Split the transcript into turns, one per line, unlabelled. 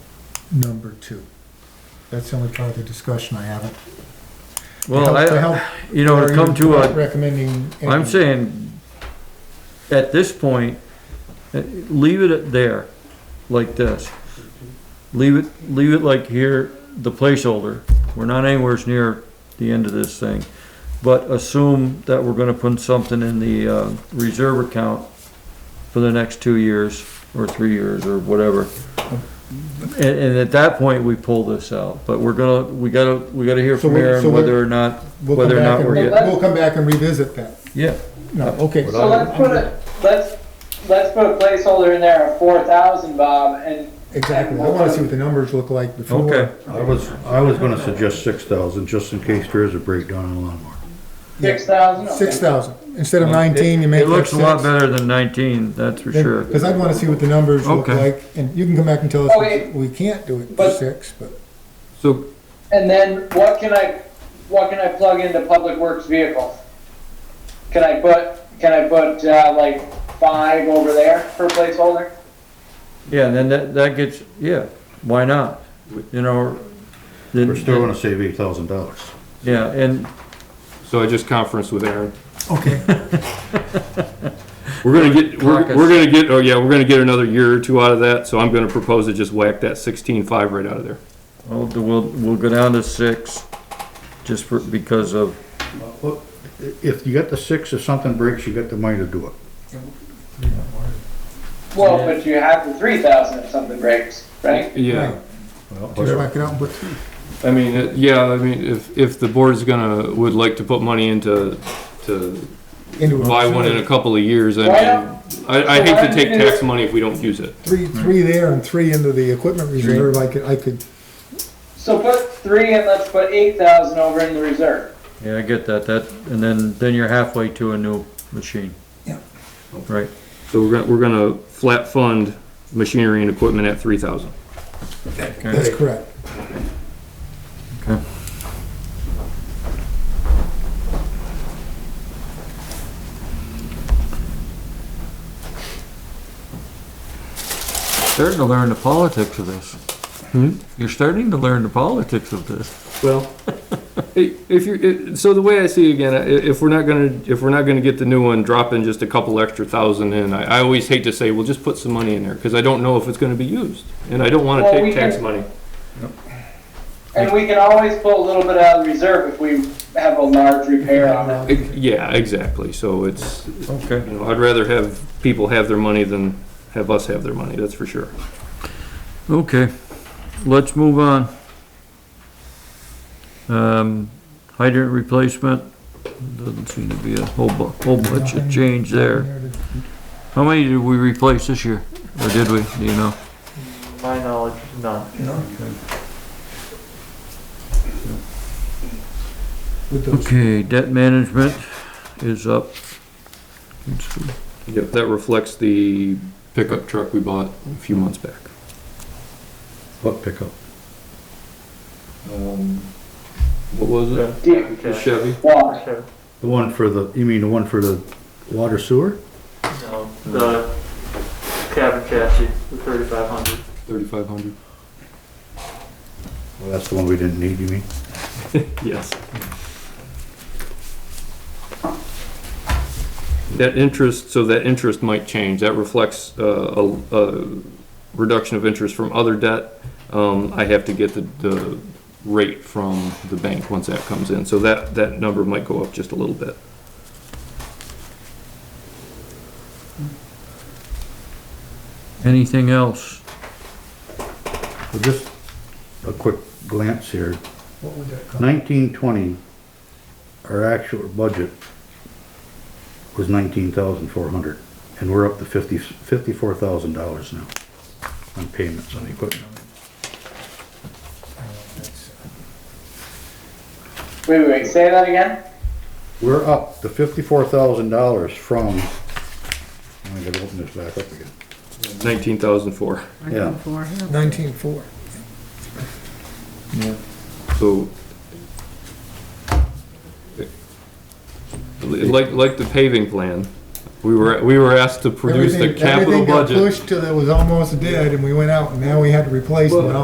number two. That's the only part of the discussion I haven't.
Well,
To
I,
help-
you know, to come to
Are you
a,
Recommending.
I'm saying, at this point, eh, leave it at there, like this. Leave it, leave it like here, the placeholder. We're not anywhere near the end of this thing. But assume that we're gonna put something in the, uh, reserve account for the next two years, or three years, or whatever. And, and at that point, we pull this out, but we're gonna, we gotta, we gotta hear
So
from
we-
Aaron
so we-
whether or not,
We'll come
whether or
back
not
and
we're
re-
getting,
We'll come back and revisit that.
yeah.
No, okay.
What
So let's put a, let's, let's put a placeholder in there of four thousand, Bob, and.
Exactly. I wanna see what the numbers look like before.
Okay.
I was, I was gonna suggest six thousand, just in case there is a breakdown in the lawnmower.
Six thousand?
Six thousand. Instead of
It-
nineteen, you make
It looks a lot
that
better than nineteen, that's for
six.
sure.
Cause I'd wanna see what the numbers look
Okay.
like, and you can come back and tell us,
Okay.
we we can't do it for
But-
six, but.
So,
And then what can I, what can I plug into public works vehicles? Can I put, can I put, uh, like five over there for placeholder?
Yeah, and then that, that gets, yeah, why not? You know, then-
We're still gonna save eight thousand dollars.
yeah, and,
so I just conferenced with Aaron.
Okay.
We're gonna get, we're,
Caucus.
we're gonna get, oh yeah, we're gonna get another year or two out of that, so I'm gonna propose to just whack that sixteen-five right out of there.
oh, we'll, we'll go down to six, just for, because of,
Well, If you got the six, if something breaks, you got the money to do it.
Well,
Yeah.
but you have the three thousand if something breaks, right?
Yeah,
Just whack it out, but
I mean, it- yeah, I mean, if, if the board's gonna, would like to put money into, to
into. a-
buy one in a couple of years, I
Why
mean, I, I hate to take
Why don't you-
tax money if we don't use it.
Three, three there and three into the equipment reserve, I could, I could,
So put three and let's put eight thousand over in the reserve.
yeah, I get that, that, and then, then you're halfway to a new machine.
Yeah.
Right,
So we're gonna, we're gonna flat fund machinery and equipment at three thousand.
that's correct.
starting to learn the politics of this. You're starting to learn the politics of this.
Well, i- if you're, i- so the way I see it again, i- if we're not gonna, if we're not gonna get the new one, drop in just a couple extra thousand in. I, I always hate to say, well, just put some money in there, because I don't know if it's gonna be used, and I don't wanna
Well, we
take tax
can-
money.
And we can always pull a little bit out of the reserve if we have a large repair on it.
I- Yeah, exactly, so it's,
Okay.
you know, I'd rather have people have their money than have us have their money, that's for sure.
Okay, let's move on. Um, hydrant replacement, doesn't seem to be a whole bu- whole bunch of change there. How many did we replace this year? Or did we, do you know?
My knowledge, none.
With those
Okay, debt management is up. Let's see.
Yep, that reflects the pickup truck we bought a few months back.
What pickup?
Um, What was it?
Deep
The Chevy?
wash.
Sure.
The one for the, you mean the one for the water sewer?
No, the cabin chassis, the thirty-five hundred.
Thirty-five hundred?
Well, that's the one we didn't need, you mean?
Yes. That interest, so that interest might change. That reflects uh, a, a reduction of interest from other debt. Um, I have to get the, the rate from the bank once that comes in. So that, that number might go up just a little bit.
Anything else?
Well, Just a quick glance here.
What would that cost?
Nineteen twenty, our actual budget was nineteen thousand four hundred, and we're up to fifty, fifty-four thousand dollars now on payments on equipment.
Wait, wait, wait, say that again?
We're up to fifty-four thousand dollars from, I'm gonna open this back up again.
Nineteen thousand four.
Yeah.
Nineteen-four.
So. Like, like the paving plan, we were, we were asked to produce the
Everything-
capital
Everything got
budget.
pushed till it was almost dead, and we went out, and now we had to replace it, and
Well-